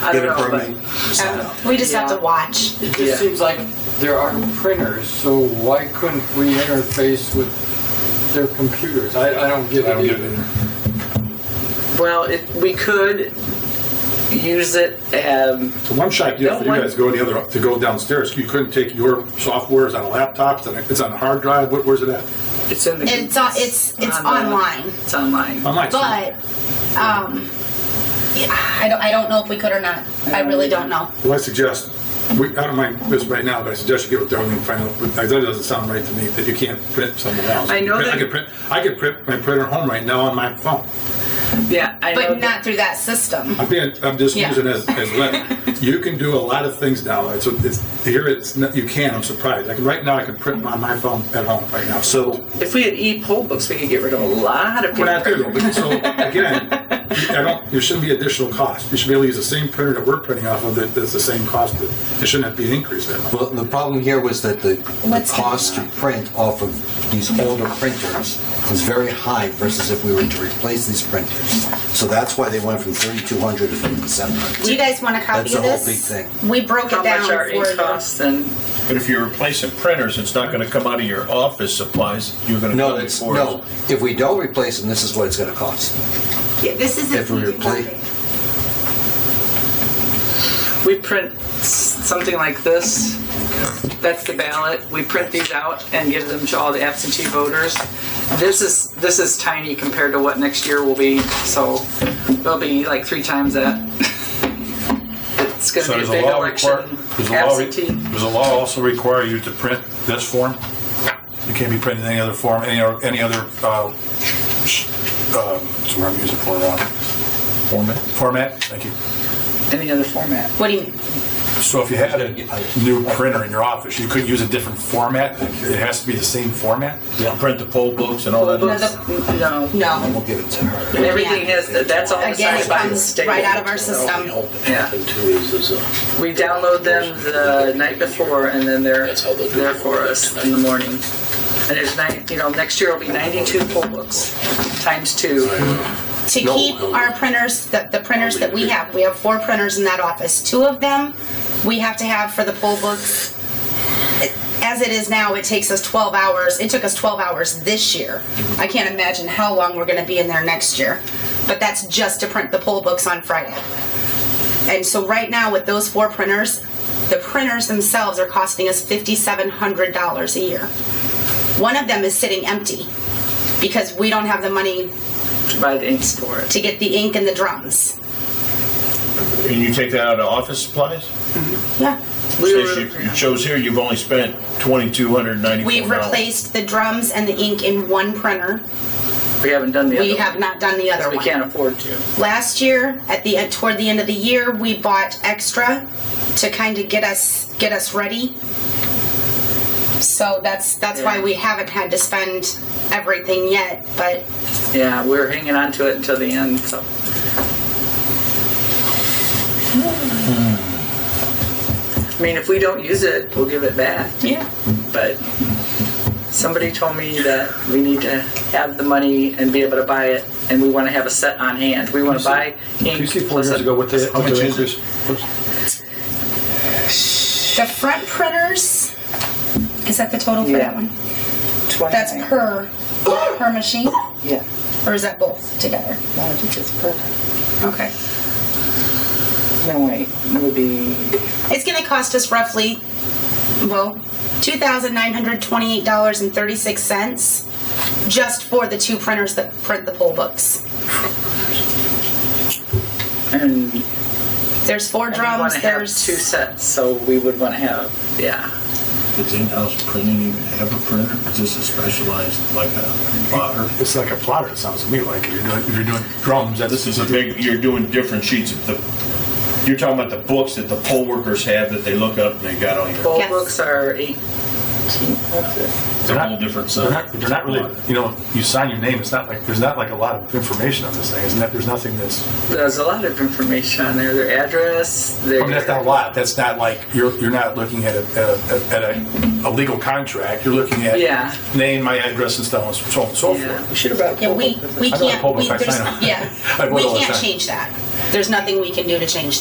I get don't a know, but permit. Um, we just have Yeah. to watch. It just Yeah. seems like there are printers, so why couldn't we interface with their computers? I, I don't get I don't it get it either. either. well, it, we could use it. Um, The one shot deal for you Don't guys go the other to go downstairs. You couldn't take your software is on a laptop. It's on a, it's on a hard drive. What, where's it at? it's in the. It's on, it's it's On the- online, It's online. Online. but um, yeah, I don't I don't know if we could or not. I really don't know. Well, I suggest, we, I don't mind this right now, but I suggest you get with Doug and find out, but that doesn't sound right to me, that you can't print somewhere else. I know Print- that- I could print, I could print my printer at home right now on my phone. Yeah, I know. But that- not through that system. I'm being, I'm just Yeah. using as, as let, you can do a lot of things now, it's, it's, here it's, not- you can, I'm surprised. I can, right now, I can print on my phone at home right now, so. if we had e-poll books, we could get rid of a lot of We're not there paper. though, but so, again, I don't, there shouldn't be additional cost. You should be able to use the same printer that we're printing off of, that, that's the same cost, it shouldn't have to be an increase that much. Well, the problem here was that the, the What's cost to going print off of these older printers was very high versus if we were to replace these printers. So that's why they went from 3,200 to 5,700. Do you guys want a copy That's the of whole this? big thing. We broke How it down much our for ink you. costs and But if you're replacing printers, it's not going to come out of your office supplies. You're going to No, come it's, before no, us. if we don't replace them, this is what it's gonna cost. Yeah, this is If we replace- we print s- something like this. That's the ballot. We print these out and give them to all the absentee voters. This is this is tiny compared to what next year will be. So it'll be like three times that. It's going to So be a does the big law election. require, does the law, re- absentee. does the law also require you to print this form? You can't be printing any other form, any, or- any other, uh, sh- uh, what's the word I'm using for, uh, Format. format? Thank you. Any other format? What do you mean? So if you had a new printer in your office, you couldn't use a different format? It has to be the same format? Yeah. You print the poll books and all that? No, Books? No. And No. we'll give it to her. Everything has that's all Again, decided it by the comes state. right out of our system. Yeah. We download them the night before, and then they're there for us in the morning. And there's nine, you know, next year will be 92 poll books, times two. To keep our printers, the, the printers that we have, we have four printers in that office. Two of them we have to have for the poll books. It- As it is now, it takes us 12 hours. It took us 12 hours this year. I can't imagine how long we're going to be in there next year. But that's just to print the poll books on Friday. And so right now with those four printers, the printers themselves are costing us $5,700 a year. One of them is sitting empty because we don't have the money By the ink store. to get the ink and the drums. And you take that out of office supplies? Yeah. We So were- you you chose here, you've only spent twenty-two hundred ninety-four We've dollars. replaced the drums and the ink in one printer. We haven't done the other We have one. not done the other We one. can't afford to. Last year, at the end- toward the end of the year, we bought extra to kind of get us get us ready. So that's that's why Yeah. we haven't had to spend everything yet, but Yeah, we're hanging on to it until the end, so. I mean, if we don't use it, we'll give it back. yeah. but somebody told me that we need to have the money and be able to buy it, and we want to have a set on hand. We want to buy You ink. see four plus years a- ago what they, How what much their is increase? The front printers is that the total for Yeah. that one? That's per per machine? Yeah. Or is that both together? No, I think it's per. Okay. No, wait, it would be. It's going to cost us roughly, well, $2,928.36 just for the two printers that print the poll books. And we There's four want drums, to have there's two sets, so we would want to have, yeah. Does in-house printing even have a printer? Is this a specialized, like a plotter? It's like a plotter, it sounds to me like, if you're doing, if you're doing drums, that's. This is a big, you're doing different sheets of the, you're talking about the books that the poll workers have that they look up and they got on here. Poll Yes. books are eight. It's a whole different They're set. not, they're not really, you know, you sign your name, it's not like, there's not like a lot of information on this thing, isn't that, there's nothing that's, There's a lot of information on there. Their address. Their I mean, Oh, that's not a lot, that's not like, you're, you're not looking at a, at a, at a, a legal contract, you're looking at Yeah. name, my address and so on, so on and so Yeah. forth. yeah, we we I don't can't poll we, books, I there's, sign 'em. yeah I vote we all the can't time. change that. There's nothing we can do to change